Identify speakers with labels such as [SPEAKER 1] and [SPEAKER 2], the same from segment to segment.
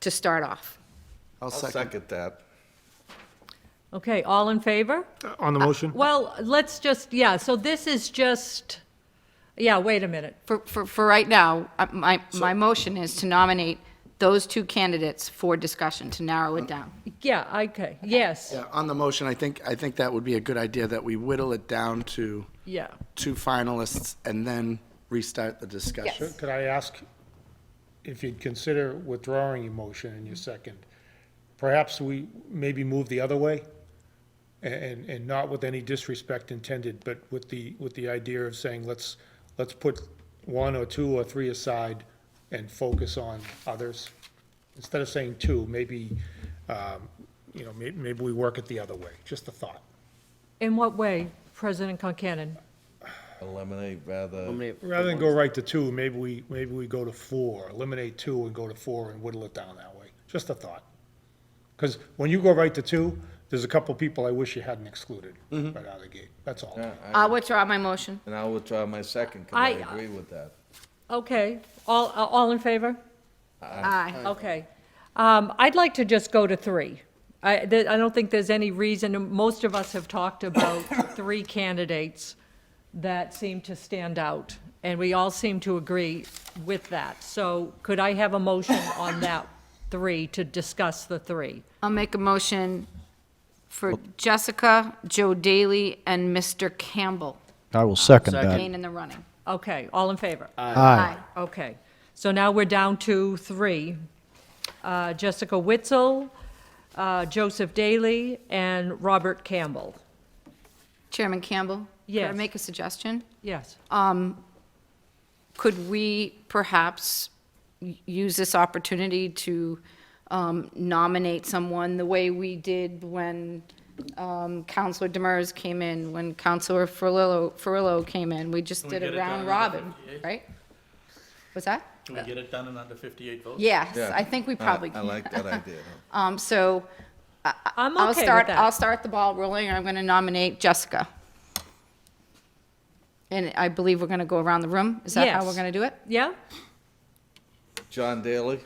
[SPEAKER 1] to start off.
[SPEAKER 2] I'll
[SPEAKER 3] I'll second that.
[SPEAKER 4] Okay, all in favor?
[SPEAKER 5] On the motion?
[SPEAKER 4] Well, let's just, yeah, so this is just, yeah, wait a minute.
[SPEAKER 1] For, for, for right now, uh, my, my motion is to nominate those two candidates for discussion, to narrow it down.
[SPEAKER 4] Yeah, okay, yes,
[SPEAKER 2] Yeah, on the motion, I think, I think that would be a good idea, that we whittle it down to
[SPEAKER 4] yeah.
[SPEAKER 2] two finalists and then restart the discussion.
[SPEAKER 5] Could I ask if you'd consider withdrawing your motion in your second? Perhaps we maybe move the other way? And, and not with any disrespect intended, but with the, with the idea of saying, let's, let's put one or two or three aside and focus on others. Instead of saying two, maybe, um, you know, may, maybe we work it the other way, just a thought.
[SPEAKER 4] In what way, President Concanon?
[SPEAKER 3] Eliminate rather,
[SPEAKER 5] Rather than go right to two, maybe we, maybe we go to four, eliminate two and go to four and whittle it down that way. Just a thought. Because when you go right to two, there's a couple people I wish you hadn't excluded right out of the gate. That's all.
[SPEAKER 1] I'll Uh, withdraw my motion.
[SPEAKER 3] and I will try my second, because I
[SPEAKER 4] I-
[SPEAKER 3] agree with that.
[SPEAKER 4] Okay, all, all in favor?
[SPEAKER 1] Aye.
[SPEAKER 4] Okay. Um, I'd like to just go to three. I, th- I don't think there's any reason, most of us have talked about three candidates that seem to stand out, and we all seem to agree with that. So could I have a motion on that three, to discuss the three?
[SPEAKER 1] I'll make a motion for Jessica, Joe Daly, and Mr. Campbell,
[SPEAKER 6] I will second
[SPEAKER 1] Kane
[SPEAKER 6] that.
[SPEAKER 1] in the running.
[SPEAKER 4] Okay, all in favor?
[SPEAKER 1] Aye.
[SPEAKER 4] Okay, so now we're down to three. Uh, Jessica Witzel, uh, Joseph Daly, and Robert Campbell.
[SPEAKER 1] Chairman Campbell? Could I
[SPEAKER 4] Yes.
[SPEAKER 1] make a suggestion?
[SPEAKER 4] Yes.
[SPEAKER 1] Could we perhaps y- use this opportunity to um, nominate someone the way we did when um, Counselor Demers came in, when Counselor Ferrillo, Ferrillo came in? We just did
[SPEAKER 7] get
[SPEAKER 1] a
[SPEAKER 7] it done
[SPEAKER 1] round
[SPEAKER 7] in
[SPEAKER 1] robin,
[SPEAKER 7] 58?
[SPEAKER 1] right? Was that?
[SPEAKER 7] Can we get it done in under 58 votes?
[SPEAKER 1] Yes,
[SPEAKER 3] Yeah.
[SPEAKER 1] I think we probably
[SPEAKER 3] I
[SPEAKER 1] can.
[SPEAKER 3] like that idea.
[SPEAKER 1] Um, So
[SPEAKER 4] I'm okay
[SPEAKER 1] I'll
[SPEAKER 4] with
[SPEAKER 1] start,
[SPEAKER 4] that.
[SPEAKER 1] I'll start the ball rolling, and I'm going to nominate Jessica. And I believe we're going to go around the room. Is that how we're
[SPEAKER 4] Yes.
[SPEAKER 1] going to do it?
[SPEAKER 4] Yeah?
[SPEAKER 3] John Daly?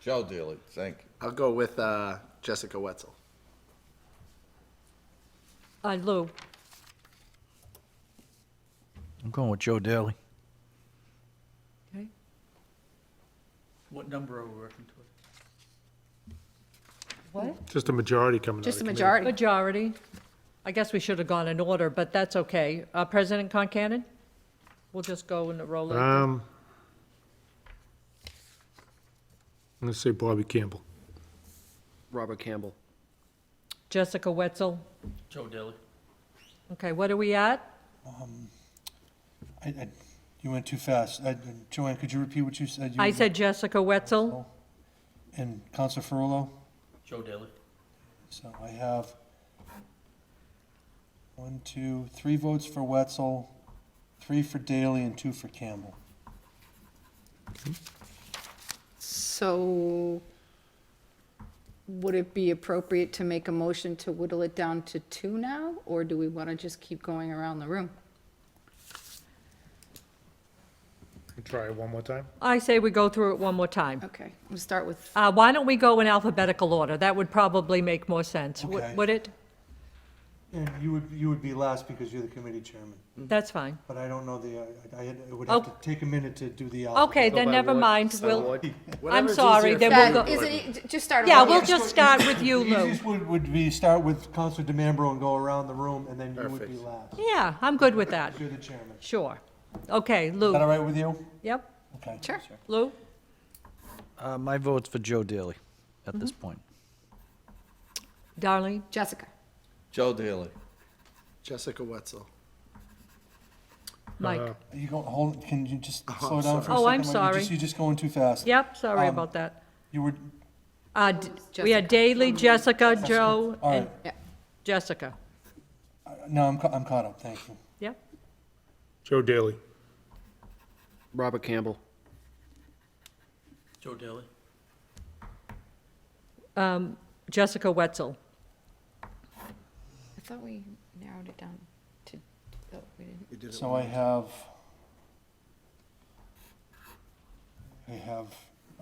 [SPEAKER 3] Joe Daly, thank you.
[SPEAKER 2] I'll go with uh, Jessica Wetzel.
[SPEAKER 4] Uh, Lou?
[SPEAKER 6] I'm going with Joe Daly.
[SPEAKER 4] Okay.
[SPEAKER 7] What number are we working towards?
[SPEAKER 4] What?
[SPEAKER 5] Just a majority coming out
[SPEAKER 1] Just
[SPEAKER 5] of
[SPEAKER 1] a
[SPEAKER 5] the committee.
[SPEAKER 1] majority.
[SPEAKER 4] Majority. I guess we should have gone in order, but that's okay. Uh, President Concanon? We'll just go in the roll. of-
[SPEAKER 5] Um, I'm going to say Bobby Campbell.
[SPEAKER 8] Robert Campbell.
[SPEAKER 4] Jessica Wetzel.
[SPEAKER 7] Joe Daly.
[SPEAKER 4] Okay, what are we at?
[SPEAKER 9] I, I, you went too fast. I, Joanne, could you repeat what you said? You
[SPEAKER 4] I said Jessica Wetzel.
[SPEAKER 9] And Council Ferrullo,
[SPEAKER 7] Joe Daly.
[SPEAKER 9] so I have one, two, three votes for Wetzel, three for Daley, and two for Campbell.
[SPEAKER 1] So would it be appropriate to make a motion to whittle it down to two now? Or do we want to just keep going around the room?
[SPEAKER 5] Try it one more time.
[SPEAKER 4] I say we go through it one more time.
[SPEAKER 1] Okay, we'll start with,
[SPEAKER 4] Uh, Why don't we go in alphabetical order? That would probably make more sense, Would-
[SPEAKER 9] Okay.
[SPEAKER 4] would it?
[SPEAKER 9] And you would, you would be last because you're the committee chairman,
[SPEAKER 4] That's fine.
[SPEAKER 9] but I don't know the, I, I had- I would have to
[SPEAKER 4] Oh.
[SPEAKER 9] take a minute to do the alphabet.
[SPEAKER 4] Okay, then
[SPEAKER 8] By
[SPEAKER 4] never
[SPEAKER 8] ward-
[SPEAKER 4] mind,
[SPEAKER 8] by
[SPEAKER 4] we'll,
[SPEAKER 8] ward.
[SPEAKER 4] I'm sorry, then we'll
[SPEAKER 1] Uh, is
[SPEAKER 4] go,
[SPEAKER 1] it, just start
[SPEAKER 4] yeah,
[SPEAKER 1] over
[SPEAKER 4] we'll
[SPEAKER 1] here.
[SPEAKER 4] just start with you,
[SPEAKER 9] The
[SPEAKER 4] Lou.
[SPEAKER 9] Easiest would, would be start with Council DeMambro and go around the room, and then you would be last.
[SPEAKER 4] Yeah, I'm good with that,
[SPEAKER 9] You're the chairman. Is
[SPEAKER 4] sure. Okay,
[SPEAKER 9] that all
[SPEAKER 4] Lou,
[SPEAKER 9] right with you?
[SPEAKER 4] yep,
[SPEAKER 9] Okay.
[SPEAKER 1] Sure.
[SPEAKER 4] Lou?
[SPEAKER 6] Uh, my vote's for Joe Daly at this point.
[SPEAKER 4] Darlene?
[SPEAKER 1] Jessica,
[SPEAKER 3] Joe Daly.
[SPEAKER 2] Jessica Wetzel.
[SPEAKER 4] Mike?
[SPEAKER 9] Are You go, hold, can you just slow down for a second?
[SPEAKER 4] sorry. Oh, I'm
[SPEAKER 9] Mike? You're just-
[SPEAKER 4] sorry.
[SPEAKER 9] You're just going too fast.
[SPEAKER 4] Yep, sorry
[SPEAKER 9] Um,
[SPEAKER 4] about that.
[SPEAKER 9] You were,
[SPEAKER 4] Uh, d- We had Daley, Jessica, Joe,
[SPEAKER 9] Mm-hmm. all
[SPEAKER 4] and
[SPEAKER 9] right,
[SPEAKER 4] Jessica.
[SPEAKER 9] no, I'm, ca- I'm caught up, thank you.
[SPEAKER 4] Yep,
[SPEAKER 5] Joe Daly.
[SPEAKER 8] Robert Campbell.
[SPEAKER 7] Joe Daly.
[SPEAKER 4] Jessica Wetzel.
[SPEAKER 1] I thought we narrowed it down to, oh, we didn't.
[SPEAKER 9] So I have, I have